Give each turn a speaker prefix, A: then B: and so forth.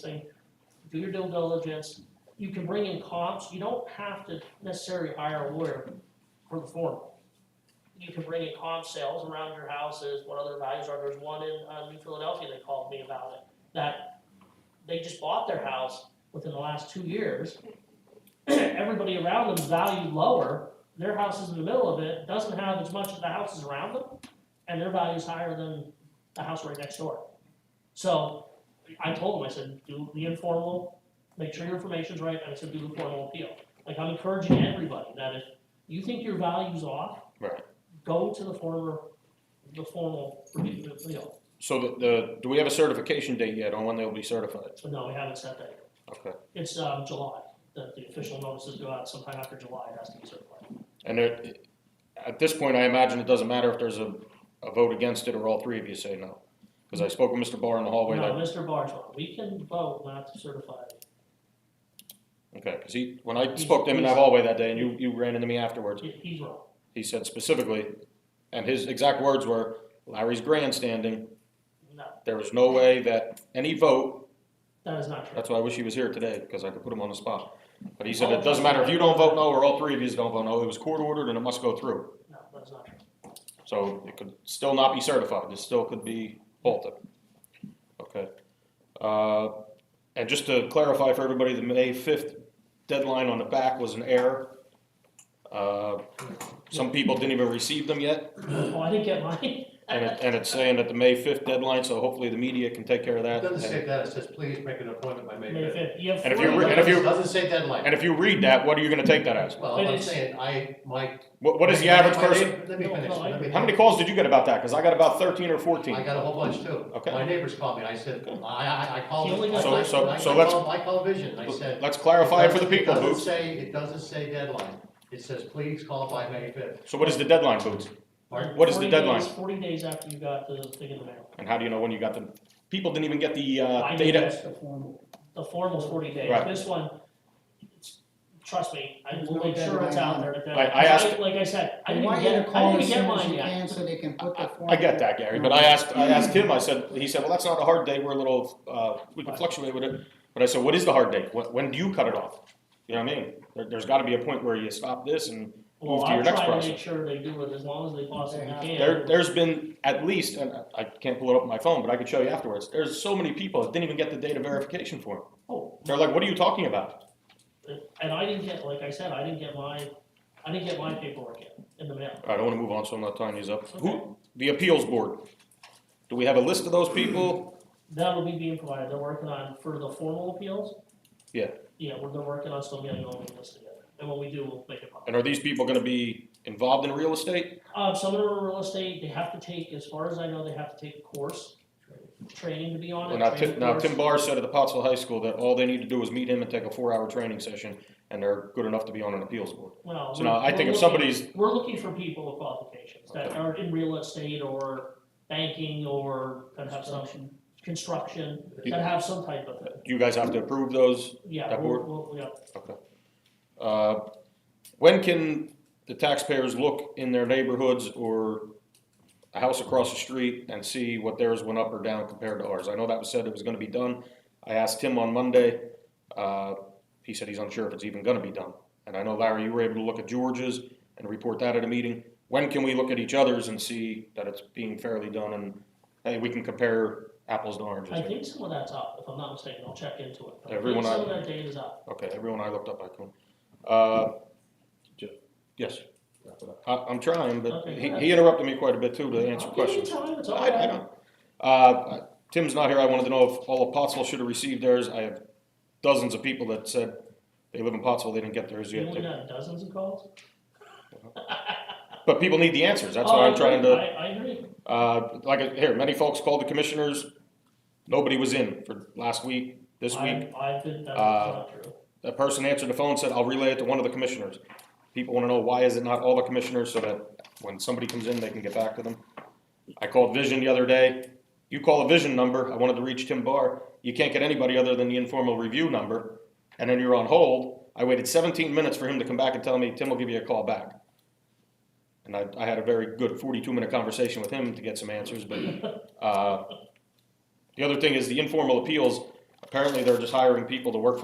A: saying, do your due diligence, you can bring in comps, you don't have to necessarily hire a lawyer for the form. You can bring in comp sales around your houses, what other values are, there's one in, uh, New Philadelphia that called me about it, that they just bought their house within the last two years. Everybody around them valued lower, their house is in the middle of it, doesn't have as much of the houses around them, and their value's higher than the house right next door. So, I told him, I said, do the informal, make sure your information's right, and I said, do the formal appeal. Like, I'm encouraging everybody that if you think your value's off.
B: Right.
A: Go to the former, the formal review of the appeal,
B: So the, the, do we have a certification date yet on when they'll be certified?
A: so no, we haven't set that. yet.
B: Okay.
A: It's, um, July, that the official notices go out sometime after July, it has to be certified.
B: And there, at this point, I imagine it doesn't matter if there's a, a vote against it or all three of you say no. Because I spoke with Mr. Barr in the hallway,
A: No,
B: that,
A: Mr. Bartol, we can vote not to certify.
B: okay, because he, when I spoke to him in that hallway that day and you, you ran into me afterwards,
A: He- He's wrong.
B: he said specifically, and his exact words were, Larry's grandstanding,
A: No,
B: there was no way that any vote,
A: that is not true.
B: that's why I wish he was here today, because I could put him on the spot. But he said, it doesn't matter if you don't vote no or all three of you don't vote no, it was court ordered and it must go through.
A: No, that is not true.
B: So it could still not be certified, this still could be halted. Okay. Uh, And just to clarify for everybody, the May 5th deadline on the back was an error. Uh, Some people didn't even receive them yet,
A: Oh, I didn't get mine.
B: and it- and it's saying that the May 5th deadline, so hopefully the media can take care of that.
C: It doesn't
B: And-
C: say that, it says please make an appointment by May
A: May
C: fifth.
A: fifth, you have
B: And if
A: forty
B: you re-
A: days.
B: and if you-
C: It doesn't say deadline.
B: And if you read that, what are you going to take that as?
C: Well,
A: But
C: I'm
A: it's-
C: saying, I, my.
B: What what is the average person?
C: Let me
A: No,
C: finish,
A: no, I
C: let me.
B: How many calls did you get about that? Because I got about 13 or 14.
C: I got a whole bunch too.
B: Okay.
C: My neighbors called me, and I said, I, I, I called.
A: He only got
B: So-
C: I-
B: so-
C: I-
B: so
C: I
B: let's-
C: called- I called Vision, I said.
B: Let's clarify it for the
C: it
B: people,
C: doesn't-
B: Boots.
C: It doesn't say, it doesn't say deadline, it says please call by May fifth.
B: So what is the deadline, Boots?
C: Pardon?
B: What is the
A: 40
B: deadline?
A: days- Forty days after you got the thing in the mail.
B: And how do you know when you got the, people didn't even get the
A: I
B: uh,
A: think
B: data?
A: that's The formal. The formal's forty days,
B: Right.
A: this one, it's- trust me, I
D: There's
A: will
D: no
A: make sure it's
D: deadline
A: out
D: on
A: there. that-
B: I- I asked-
A: like- Like I said, I
D: I
A: didn't
D: want you to
A: get, I
D: call
A: didn't
D: as
A: get
D: soon as
A: mine
D: you
A: yet. Mm-hmm.
D: can so they can put the form.
B: I get that, Gary, but I asked, I asked him, I said, he said, well, that's not a hard date, we're a little, uh, we can fluctuate with it. But I said, what is the hard date? When, when do you cut it off? You know what I mean? There, there's gotta be a point where you stop this and move
A: Well,
B: to your
A: I'm
B: next
A: trying to make
B: process.
A: sure they do it as long as they possibly
D: have
A: can.
B: There, there's been at least, and I- I can't pull it up on my phone, but I could show you afterwards, there's so many people that didn't even get the data verification form.
A: Oh,
B: They're like, what are you talking about?
A: and I didn't get, like I said, I didn't get my, I didn't get my paperwork yet in the mail.
B: All right, I wanna move on, so I'm not tying these up. Who, the appeals board? Do we have a list of those people?
A: That'll be being provided, they're working on, for the formal appeals?
B: Yeah.
A: Yeah, we're, they're working on still getting all the lists together, and when we do, we'll make it public.
B: And are these people gonna be involved in real estate?
A: Um, some of them are real estate, they have to take, as far as I know, they have to take a course, training to be on
B: Well,
A: it.
B: now,
A: training
B: Tim, now
A: course.
B: Tim Barr said at the Pottsville High School that all they need to do is meet him and take a four-hour training session, and they're good enough to be on an appeals board.
A: Well,
B: So now, I
A: we're-
B: think if
A: we're looking-
B: somebody's,
A: We're looking for people with qualifications that
B: Okay.
A: are in real estate or banking or that have some construction,
B: You-
A: that have some type of,
B: you guys have to approve those.
A: yeah,
B: That
A: we'll,
B: board?
A: we'll, yeah.
B: Uh, When can the taxpayers look in their neighborhoods or a house across the street and see what theirs went up or down compared to ours? I know that was said it was gonna be done. I asked Tim on Monday, uh, he said he's unsure if it's even gonna be done. And I know Larry, you were able to look at George's and report that at a meeting. When can we look at each other's and see that it's being fairly done and, hey, we can compare apples to
A: I
B: oranges?
A: think some of that's up, if I'm not mistaken, I'll check into it. But I think
B: Everyone
A: Some
B: I-
A: of that data's up,
B: Okay, everyone I looked up, I couldn't. Uh, Jeff, yes, I, I'm trying, but
A: Okay,
B: he,
A: go ahead.
B: he interrupted me quite a bit too to answer
A: I'll give you
B: questions.
A: time, it's all
B: I, I
A: right.
B: don't. Uh, Tim's not here. I wanted to know if all of Pottsville should have received theirs. I have dozens of people that said they live in Pottsville, they didn't get theirs
A: you
B: yet.
A: only got dozens of calls?
B: But people need the answers. That's
A: Oh,
B: what
A: I
B: I'm trying
A: agree.
B: to.
A: I, I agree,
B: Uh, like here, many folks called the commissioners. Nobody was in for last week, this
A: I,
B: week.
A: I've been, that's
B: Uh,
A: not true.
B: A person answered the phone and said, I'll relay it to one of the commissioners. People want to know why is it not all the commissioners so that when somebody comes in, they can get back to them. I called Vision the other day. You call a Vision number, I wanted to reach Tim Barr. You can't get anybody other than the informal review number, and then you're on hold. I waited seventeen minutes for him to come back and tell me, Tim will give you a call back. And I, I had a very good forty-two minute conversation with him to get some answers, but, uh, the other thing is the informal appeals, apparently they're just hiring people to work for